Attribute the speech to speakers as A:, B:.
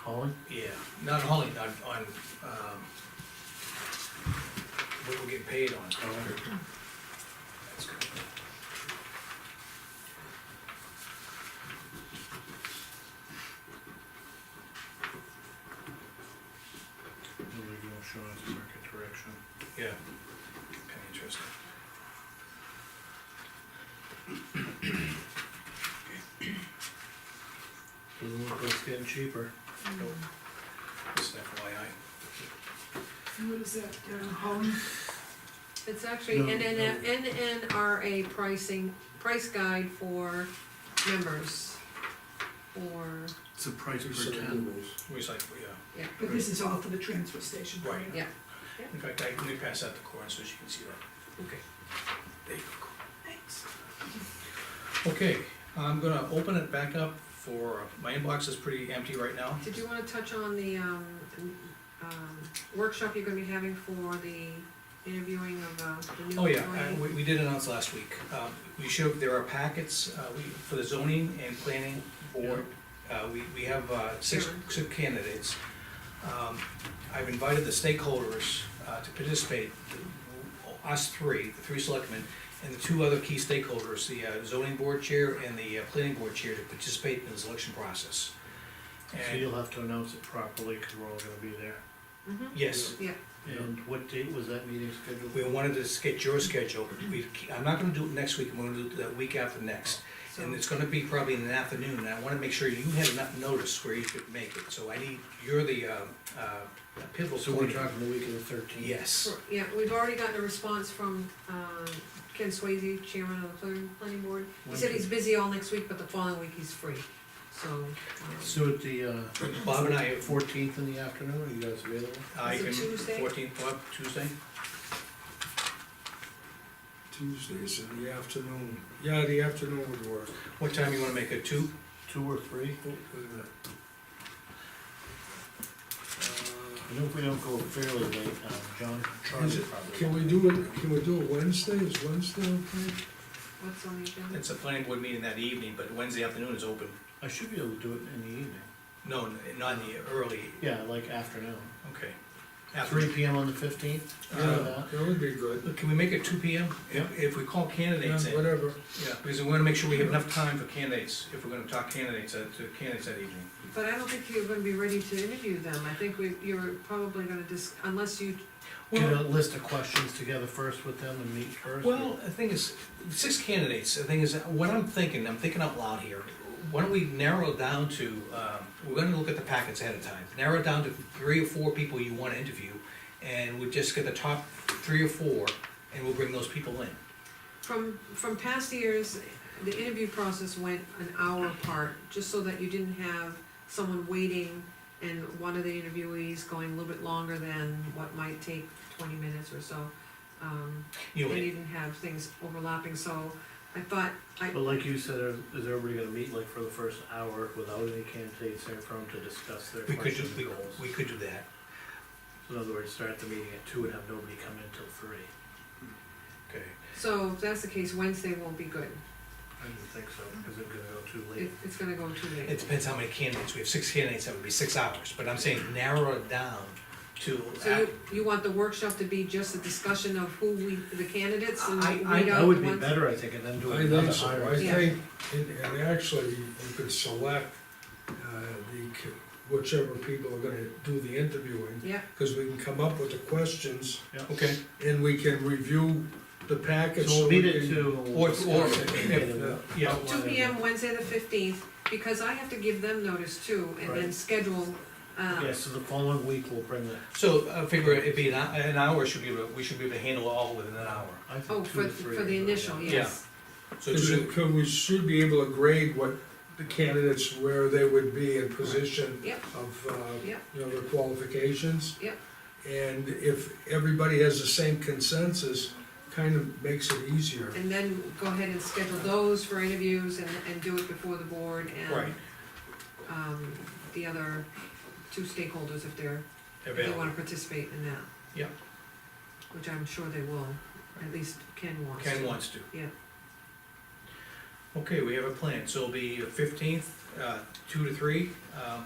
A: Holly?
B: Um, Yeah, not Holly, on, on, um, what we're getting paid on. That's good.
C: Illegal insurance market direction.
B: Yeah, kinda interesting.
A: Doesn't look like it's getting cheaper.
B: Nope. Just FYI.
D: What is that, uh, home?
E: It's actually
A: No,
E: NN NNRA pricing, price guide for members. For,
A: It's a price per ton.
B: We was like, yeah,
D: But this is all for the transfer station.
B: right.
E: yeah,
B: In fact, I, let me pass that to Corin so she can see that. Okay. There you go.
D: Thanks.
B: Okay, I'm gonna open it back up for, my inbox is pretty empty right now.
E: did you wanna touch on the, um, um, workshop you're gonna be having for the interviewing of, uh, the new
B: Oh, yeah,
E: employee?
B: I- we, we did announce last week. Um, We showed, there are packets, uh, we, for the zoning and planning board. Uh, we, we have, uh, six,
E: Sure.
B: six candidates. Um, I've invited the stakeholders, uh, to participate, the- us three, the three selectmen, and the two other key stakeholders, the uh, zoning board chair and the uh, planning board chair, to participate in the selection process.
A: So
B: And,
A: you'll have to announce it properly, cause we're all gonna be there.
E: Mhm.
B: yes,
E: Yeah,
A: And what date was that meeting scheduled?
B: we wanted to get your schedule. We, I'm not gonna do it next week, I'm gonna do it the week after next. And
E: so,
B: it's gonna be probably in the afternoon, and I wanna make sure you had enough notice where you could make it, so I need, you're the, uh, uh, pivotal.
A: So we're
B: point.
A: talking the week of the thirteenth?
B: Yes,
E: for- yeah, we've already gotten a response from, um, Ken Swayze, chairman of the planning- planning board. He said he's busy all next week, but the following week he's free, so. um,
A: So at the, uh,
B: Bob and I,
A: fourteenth in the afternoon, are you guys available?
B: I
E: Is it
B: can,
E: Tuesday?
B: fourteenth, Bob, Tuesday?
C: Tuesdays in the afternoon. Yeah, the afternoon would work.
B: What time you wanna make it, two?
A: Two or three?
C: Oh, wait a minute. Uh,
A: I know if we don't go fairly late, um, John, Charlie
F: Is it-
A: probably.
F: Can we do it, can we do it Wednesday, is Wednesday okay?
E: What's on the agenda?
B: It's a planning board meeting that evening, but Wednesday afternoon is open.
A: I should be able to do it in the evening,
B: No, n- not in the early,
A: yeah, like afternoon,
B: okay.
A: three
B: After, uh,
A: P M on the fifteenth,
F: Yeah, that would be good,
B: can we make it two P M?
A: Yeah.
B: If we call
F: yeah,
B: candidates in, yeah,
F: whatever,
B: because we wanna make sure we have enough time for candidates, if we're gonna talk candidates, uh, to candidates that evening.
E: But I don't think you're gonna be ready to interview them, I think we, you're probably gonna dis, unless you,
A: get a list of questions together first with them and meet first.
B: Well, the thing is, six candidates, the thing is, what I'm thinking, I'm thinking out loud here. Why don't we narrow it down to, um, we're gonna look at the packets ahead of time, narrow it down to three or four people you wanna interview, and we just get the top three or four, and we'll bring those people in.
E: from, from past years, the interview process went an hour apart, just so that you didn't have someone waiting and one of the interviewees going a little bit longer than what might take twenty minutes or so. Um,
B: You
E: and
B: know,
E: you didn't have things overlapping, so I thought, I,
A: But like you said, are- is everybody gonna meet like for the first hour without any candidates there from to discuss their
B: we could do,
A: questions and
B: we,
A: goals?
B: we could do that.
A: In other words, start the meeting at two and have nobody come in till three.
B: Okay.
E: so if that's the case, Wednesday won't be good,
A: I didn't think so, because it's gonna go too
E: it,
A: late.
E: it's gonna go too late.
B: It depends how many candidates, we have six candidates, that would be six hours, but I'm saying narrow it down to.
E: So you, you want the workshop to be just a discussion of who we, the candidates and
B: I-
E: weed
B: I-
E: out
A: That
E: the ones?
A: would be better, I think, and then do
F: I think
A: another
F: so,
A: hire.
F: I
E: Yeah.
F: think, and, and actually, you could select, uh, the, c- whichever people are gonna do the interviewing,
E: Yeah,
F: cause we can come up with the questions,
B: Okay,
F: and we can review the packets.
A: So we'll meet at
F: can-
A: two. and we'll
B: Or- or-
A: discuss it,
B: if-
A: and then
B: yeah,
A: we'll
E: two
A: outline
E: P M,
A: it.
E: Wednesday the fifteenth, because I have to give them notice too, and then
A: Right.
E: schedule, uh,
A: Yeah, so the following week we'll bring the,
B: so I figure it'd be an, hou- an hour, should be, able to- we should be able to handle all within an hour.
A: I
E: oh,
A: think two
E: for,
A: to three.
E: for the
A: is right
E: initial,
A: now.
B: Yeah.
E: yes.
B: So
F: Cause
B: two,
F: it- 'cause we should be able to grade what the candidates, where they would be in position
E: Yep.
F: of, uh,
E: Yep.
F: you know, their qualifications.
E: Yep.
F: And if everybody has the same consensus, kind of makes it easier.
E: And then go ahead and schedule those for interviews and, and do it before the board and,
B: Right.
E: um, the other two stakeholders if they're, if they
B: available.
E: wanna participate in that.
B: Yep.
E: Which I'm sure they will, at least Ken wants to.
B: Ken wants to.
E: Yeah.
B: Okay, we have a plan, so it'll be fifteenth, uh, two to three, um,